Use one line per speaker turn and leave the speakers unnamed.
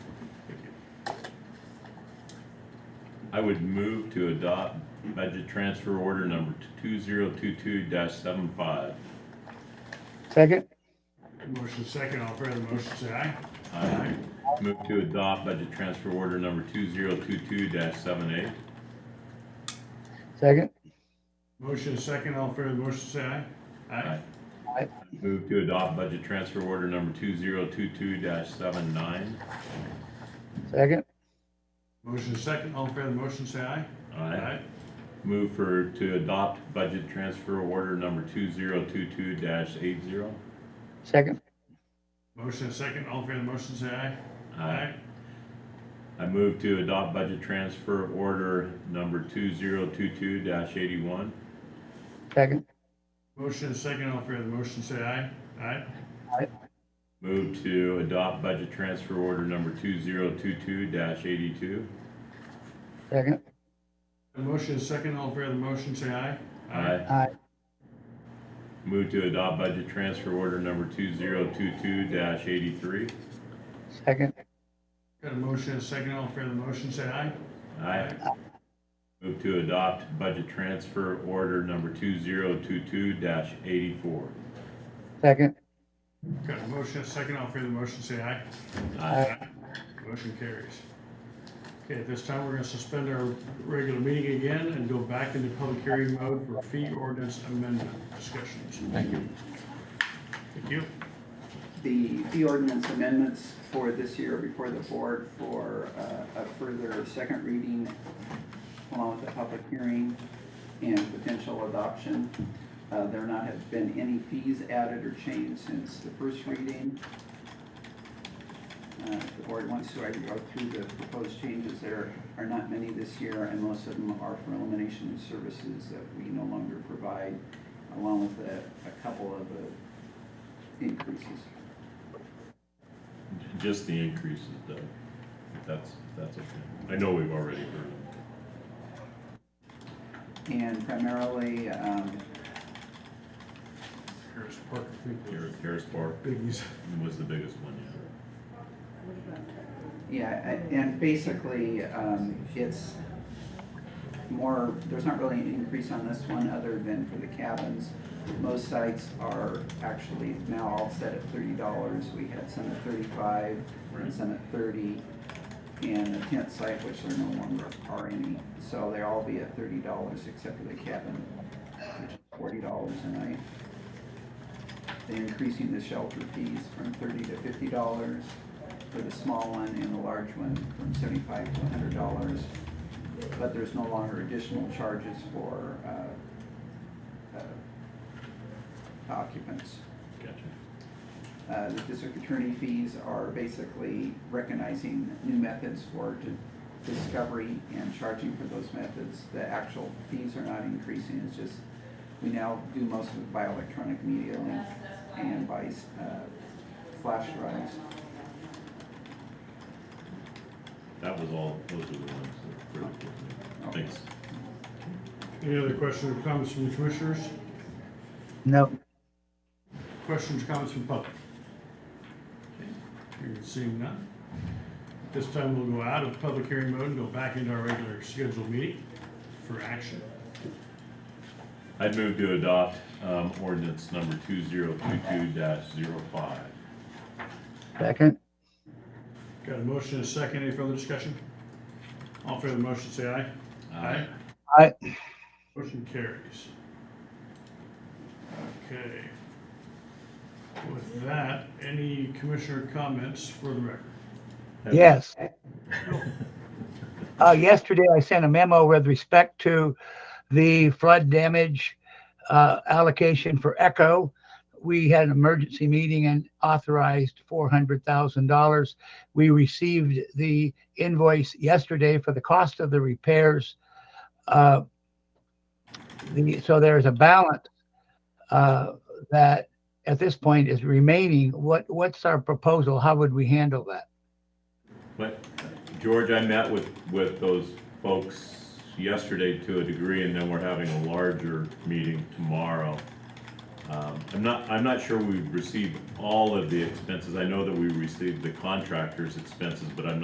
I would move to adopt budget transfer order number two zero two two 75
Second?
Motion second, all fair the motion, say aye.
I move to adopt budget transfer order number two zero two two 78
Second?
Motion second, all fair the motion, say aye. Aye.
Move to adopt budget transfer order number two zero two two 79
Second?
Motion second, all fair the motion, say aye.
I move for, to adopt budget transfer order number two zero two two 80
Second?
Motion second, all fair the motion, say aye.
I move to adopt budget transfer order number two zero two two eighty-one.
Second?
Motion second, all fair the motion, say aye. Aye.
Move to adopt budget transfer order number two zero two two eighty-two.
Second?
The motion is second, all fair the motion, say aye.
Aye.
Move to adopt budget transfer order number two zero two two eighty-three.
Second?
Got a motion is second, all fair the motion, say aye.
Aye. Move to adopt budget transfer order number two zero two two eighty-four.
Second?
Got a motion is second, all fair the motion, say aye.
Aye.
Motion carries. Okay, at this time, we're gonna suspend our regular meeting again and go back into public hearing mode for fee ordinance amendment discussions. Thank you. Thank you.
the fee ordinance amendments for this year before the board for uh, a further second reading along with a public hearing and potential adoption. Uh, There not have been any fees added or changed since the first reading. Uh, if The board wants to, I can go through the proposed changes. There are not many this year, and most of them are for elimination of services that we no longer provide, along with a a couple of uh, increases.
Just the increases, Doug. If That's, if that's okay. I know we've already heard them.
And primarily, um,
Harris Park, I think,
Har-
was
Harris Park
biggies.
was the biggest one, yeah.
yeah, a- and basically, um, it's more, there's not really an increase on this one other than for the cabins. Most sites are actually now all set at thirty dollars. We had some at thirty-five and some at thirty. And the tent site, which there no longer are any, so they all be at thirty dollars except for the cabin, which is forty dollars a night. They're increasing the shelter fees from thirty to fifty dollars for the small one and the large one from seventy-five to hundred dollars. But there's no longer additional charges for, uh, uh, occupants.
Gotcha.
Uh, The district attorney fees are basically recognizing new methods for di- discovery and charging for those methods. The actual fees are not increasing, it's just, we now do most of it by electronic media link and by uh, flash drives.
That was all, those are the ones that were pretty cool. Thanks.
Any other questions or comments from the commissioners?
No.
Questions, comments from public? Hearing seeing none. At This time, we'll go out of public hearing mode and go back into our regular scheduled meeting for action.
I'd move to adopt, um, ordinance number two zero two two 5
Second?
Got a motion and a second. Any further discussion? All in favor of the motion, say aye.
Uh,
Aye.
Aye.
Motion carries. Okay. With that, any commissioner comments for the record?
Yes. Uh, yesterday, I sent a memo with respect to the flood damage uh, allocation for Echo. We had an emergency meeting and authorized $400,000. We received the invoice yesterday for the cost of the repairs. Uh, the- So there's a balance uh, that at this point is remaining. What, what's our proposal? How would we handle that?
But, George, I met with, with those folks yesterday to a degree, and then we're having a larger meeting tomorrow. Um, I'm not, I'm not sure we've received all of the expenses. I know that we received the contractor's expenses, but I'm not